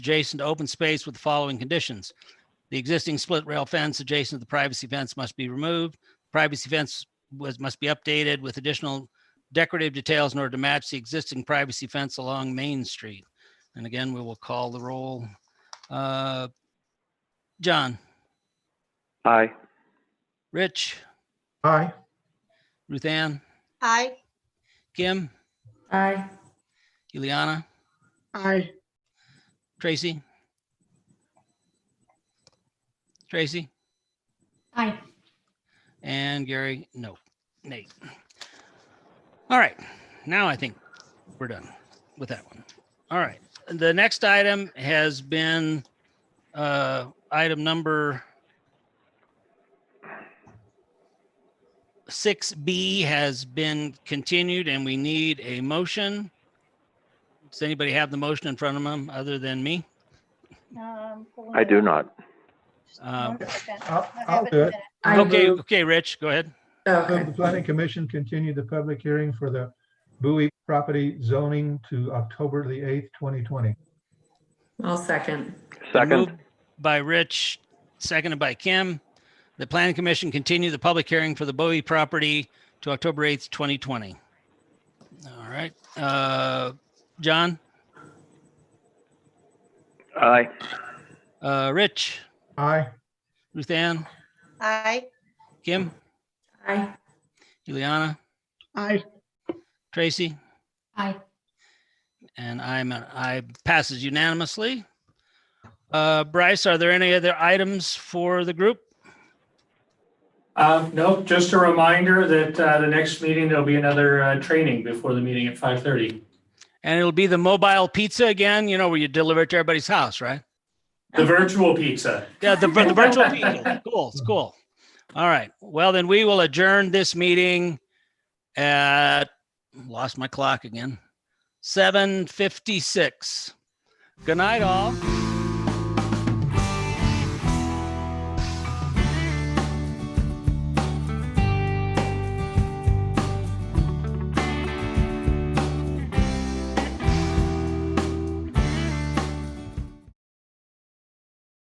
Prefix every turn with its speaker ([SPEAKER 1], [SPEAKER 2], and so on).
[SPEAKER 1] adjacent to open space with the following conditions. The existing split rail fence adjacent to the privacy fence must be removed. Privacy fence was, must be updated with additional decorative details in order to match the existing privacy fence along Main Street. And again, we will call the roll. Uh, John,
[SPEAKER 2] Aye.
[SPEAKER 1] Rich,
[SPEAKER 3] Aye.
[SPEAKER 1] Ruth Ann,
[SPEAKER 4] Aye.
[SPEAKER 1] Kim,
[SPEAKER 5] Aye.
[SPEAKER 1] Ileana,
[SPEAKER 5] Aye.
[SPEAKER 1] Tracy? Tracy?
[SPEAKER 5] Aye.
[SPEAKER 1] And Gary, no, Nate. All right, now I think we're done with that one. All right, the next item has been uh, item number six B has been continued, and we need a motion. Does anybody have the motion in front of them other than me?
[SPEAKER 2] I do not.
[SPEAKER 1] Um,
[SPEAKER 3] I'll- I'll do it.
[SPEAKER 5] I
[SPEAKER 1] okay,
[SPEAKER 5] move-
[SPEAKER 1] okay, Rich, go ahead.
[SPEAKER 3] Move
[SPEAKER 5] Okay.
[SPEAKER 3] The planning commission continued the public hearing for the Bowie property zoning to October the 8th, 2020.
[SPEAKER 5] I'll second.
[SPEAKER 2] Second,
[SPEAKER 1] Moved By Rich, seconded by Kim. The planning commission continue the public hearing for the Bowie property to October 8th, 2020. All right, uh, John,
[SPEAKER 2] aye.
[SPEAKER 1] uh, Rich,
[SPEAKER 3] Aye.
[SPEAKER 1] Ruth Ann,
[SPEAKER 4] Aye.
[SPEAKER 1] Kim,
[SPEAKER 5] Aye.
[SPEAKER 1] Juliana,
[SPEAKER 5] Aye.
[SPEAKER 1] Tracy,
[SPEAKER 5] Aye.
[SPEAKER 1] and I'm, an I passes unanimously. Uh, Bryce, are there any other items for the group?
[SPEAKER 6] Uh, no, just a reminder that, uh, the next meeting, there'll be another, uh, training before the meeting at five thirty.
[SPEAKER 1] And it'll be the mobile pizza again, you know, where you deliver it to everybody's house, right?
[SPEAKER 6] The virtual pizza.
[SPEAKER 1] Yeah, the, vir- the virtual meeting. Cool, it's cool. All right. Well, then we will adjourn this meeting at, lost my clock again, 7:56. Good night, all.